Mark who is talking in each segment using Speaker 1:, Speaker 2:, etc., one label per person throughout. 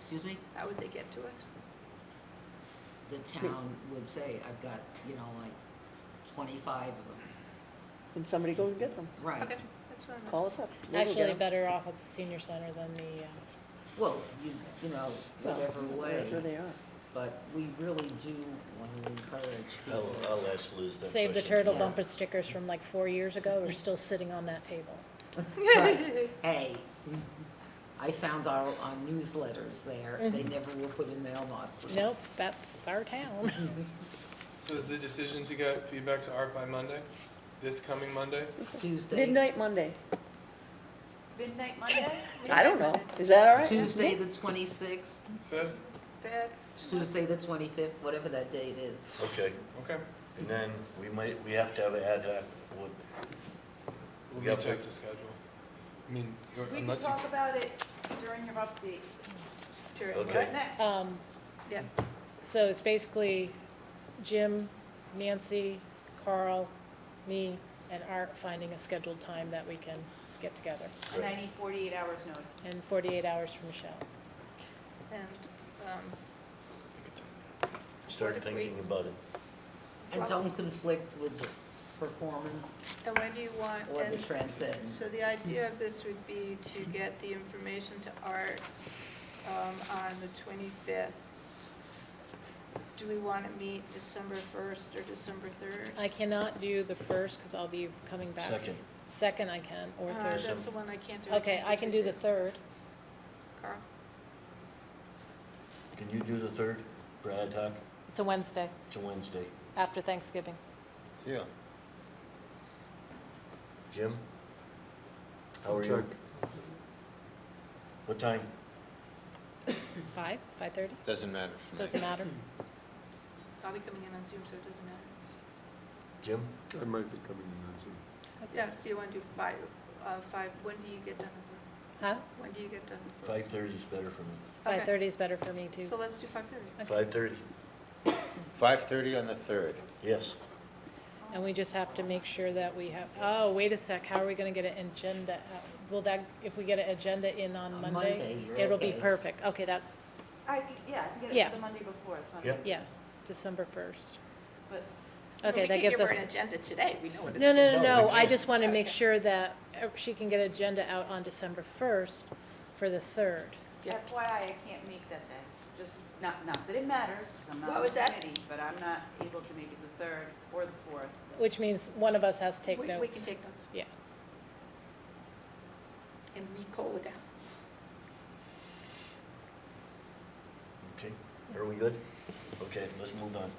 Speaker 1: Excuse me?
Speaker 2: How would they get to us?
Speaker 1: The town would say, I've got, you know, like twenty-five of them.
Speaker 3: And somebody goes and gets them.
Speaker 1: Right.
Speaker 2: Okay, that's what I'm
Speaker 3: Call us up. We'll go get
Speaker 4: Actually,
Speaker 3: 'em.
Speaker 4: better off at the senior center than the, uh,
Speaker 1: Well, you, you know,
Speaker 3: Well,
Speaker 1: whatever
Speaker 3: Wherever
Speaker 1: way,
Speaker 3: they are.
Speaker 1: but we really do want to encourage
Speaker 5: I'll,
Speaker 1: people.
Speaker 5: I'll ask Liz that question.
Speaker 4: save the turtle
Speaker 1: yeah.
Speaker 4: bumper stickers from like four years ago are still sitting on that table.
Speaker 1: But, Hey, I found our, our newsletters there,
Speaker 3: Mm-hmm.
Speaker 1: they never were put in mailboxes.
Speaker 4: Nope, that's our town.
Speaker 6: So is the decision to get feedback to Art by Monday? This coming Monday?
Speaker 1: Tuesday.
Speaker 3: Midnight Monday.
Speaker 2: Midnight Monday?
Speaker 3: I don't know. Is that all right?
Speaker 1: Tuesday, the twenty-sixth,
Speaker 6: Fifth?
Speaker 1: Tuesday, the twenty-fifth, whatever that date is.
Speaker 5: Okay,
Speaker 6: Okay.
Speaker 5: and then we might, we have to have an ad hoc, what,
Speaker 6: We'll
Speaker 5: Yeah,
Speaker 6: recheck
Speaker 5: but-
Speaker 6: the schedule. I mean, or-
Speaker 7: We can
Speaker 6: unless you,
Speaker 7: talk about it during your update.
Speaker 2: Sure.
Speaker 5: Okay.
Speaker 7: Right next.
Speaker 4: Um,
Speaker 2: Yeah.
Speaker 4: so it's basically Jim, Nancy, Carl, me, and Art finding a scheduled time that we can get together,
Speaker 7: And I need 48 hours notice.
Speaker 4: and forty-eight hours from Michelle.
Speaker 2: And, um, What
Speaker 5: start
Speaker 2: if we-
Speaker 5: thinking about it.
Speaker 1: And don't conflict with the performance
Speaker 2: and when do you want,
Speaker 1: or the
Speaker 2: and
Speaker 1: transcend.
Speaker 2: so the idea of this would be to get the information to Art, um, on the twenty-fifth. Do we want to meet December first or December third?
Speaker 4: I cannot do the first, because I'll be coming back.
Speaker 5: Second.
Speaker 4: Second I can, or
Speaker 2: Uh,
Speaker 4: third.
Speaker 2: that's the one I can't do.
Speaker 4: Okay, I can do the
Speaker 2: Tuesday.
Speaker 4: third.
Speaker 2: Carl,
Speaker 5: Can you do the third for ad hoc?
Speaker 4: It's a Wednesday,
Speaker 5: It's a Wednesday.
Speaker 4: after Thanksgiving.
Speaker 5: Yeah. Jim? How are you? What time?
Speaker 4: Five, five-thirty?
Speaker 8: Doesn't matter for me.
Speaker 4: Doesn't matter.
Speaker 2: I'll be coming in on Zoom, so it doesn't matter.
Speaker 5: Jim?
Speaker 8: I might be coming in on Zoom.
Speaker 4: That's
Speaker 2: Yeah, so you want to do five, uh, five, when do you get done with work?
Speaker 4: it. Huh?
Speaker 2: When do you get done with work?
Speaker 5: Five thirty is better for me.
Speaker 2: Okay.
Speaker 4: Five-thirty is better for me, too.
Speaker 2: So let's do five thirty.
Speaker 4: Okay.
Speaker 5: Five thirty,
Speaker 8: 5:30 on the 3rd.
Speaker 5: yes.
Speaker 4: And we just have to make sure that we have, oh, wait a sec, how are we gonna get an agenda out? Will that, if we get an agenda in on
Speaker 1: On
Speaker 4: Monday?
Speaker 1: Monday, you're
Speaker 4: It'll be
Speaker 1: okay.
Speaker 4: perfect. Okay, that's,
Speaker 7: I, c- yeah, I can
Speaker 4: Yeah.
Speaker 7: get it the Monday before, it's not,
Speaker 5: Yeah.
Speaker 4: yeah, December first.
Speaker 7: but
Speaker 4: Okay, that gives us.
Speaker 2: We could give her an agenda today, we know what it's.
Speaker 4: No, no, no,
Speaker 5: No,
Speaker 4: no,
Speaker 5: we
Speaker 4: I
Speaker 5: can't.
Speaker 4: just wanna make
Speaker 2: Okay.
Speaker 4: sure that uh, she can get an agenda out on December first for the third.
Speaker 2: Yeah.
Speaker 7: FYI, I can't make that day. Just, not, not that it matters, because I'm not
Speaker 2: What
Speaker 7: on
Speaker 2: was
Speaker 7: the
Speaker 2: that?
Speaker 7: committee, but I'm not able to make it the 3rd or the 4th.
Speaker 4: Which means one of us has to take
Speaker 2: We-
Speaker 4: notes.
Speaker 2: We can take notes
Speaker 4: Yeah,
Speaker 2: and recall it down.
Speaker 5: Okay, are we good? Okay, let's move on.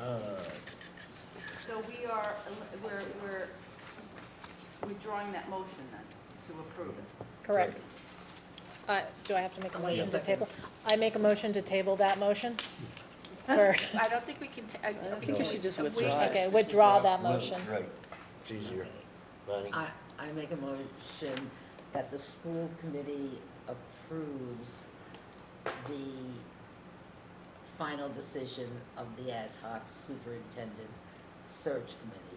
Speaker 5: Uh,
Speaker 7: So we are, el- we're, we're withdrawing that motion then, to approve it.
Speaker 4: correct. Uh,
Speaker 5: Right.
Speaker 4: do I have to make a
Speaker 1: Oh, wait a
Speaker 4: motion to
Speaker 1: second.
Speaker 4: table? I make a motion to table that motion for,
Speaker 2: I don't think we can, ta- I don't
Speaker 3: think
Speaker 2: think
Speaker 5: we
Speaker 2: we.
Speaker 3: should just
Speaker 2: we-
Speaker 3: withdraw it.
Speaker 4: okay, withdraw that
Speaker 5: no,
Speaker 4: motion.
Speaker 5: Right, it's easier. Bonnie,
Speaker 1: I, I make a motion that the school committee approves the final decision of the ad hoc superintendent search committee.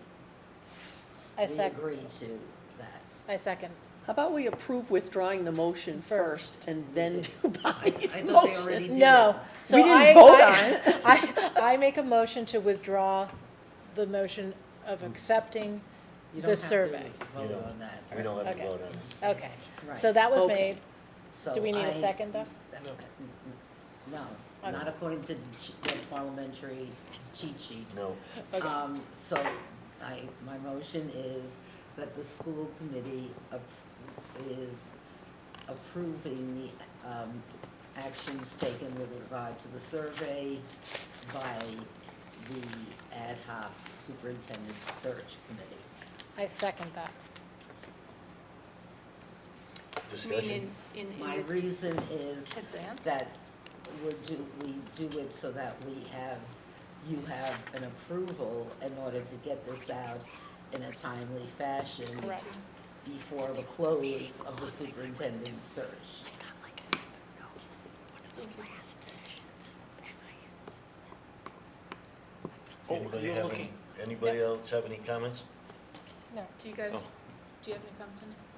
Speaker 4: I sec,
Speaker 1: We agree to that.
Speaker 4: I second.
Speaker 3: How about we approve withdrawing the motion
Speaker 4: First.
Speaker 3: first and then do Bonnie's
Speaker 1: I
Speaker 3: motion?
Speaker 1: thought they already did
Speaker 4: No. So
Speaker 3: We didn't
Speaker 4: I-
Speaker 3: vote
Speaker 4: I-
Speaker 3: on it.
Speaker 4: I, I make a motion to withdraw the motion of accepting
Speaker 1: You
Speaker 4: The
Speaker 1: don't have to
Speaker 4: survey.
Speaker 5: You
Speaker 1: Vote
Speaker 5: don't.
Speaker 1: on that.
Speaker 5: we don't have to
Speaker 4: Okay.
Speaker 5: vote on it.
Speaker 4: Okay,
Speaker 1: Right.
Speaker 4: so that was
Speaker 3: Okay.
Speaker 4: made.
Speaker 1: So
Speaker 4: Do we need
Speaker 1: I-
Speaker 4: a second, though?
Speaker 6: No.
Speaker 1: No, not according to the ch- the parliamentary cheat sheet.
Speaker 5: No,
Speaker 4: Okay,
Speaker 1: Um, so I, my motion is that the school committee ap- is approving the, um, actions taken with regard to the survey by the ad hoc superintendent search committee.
Speaker 4: I second that.
Speaker 5: discussion?
Speaker 2: Mean in, in-
Speaker 1: My
Speaker 2: in
Speaker 1: reason is
Speaker 2: advance?
Speaker 1: that we do, we do it so that we have, you have an approval in order to get this out in a timely fashion.
Speaker 4: Correct.
Speaker 1: Before the close of the superintendent's search.
Speaker 5: Oh, Anybody have any, anybody else have any comments?
Speaker 4: No.
Speaker 2: Do you guys,
Speaker 8: Oh.
Speaker 2: do you have any comments on it?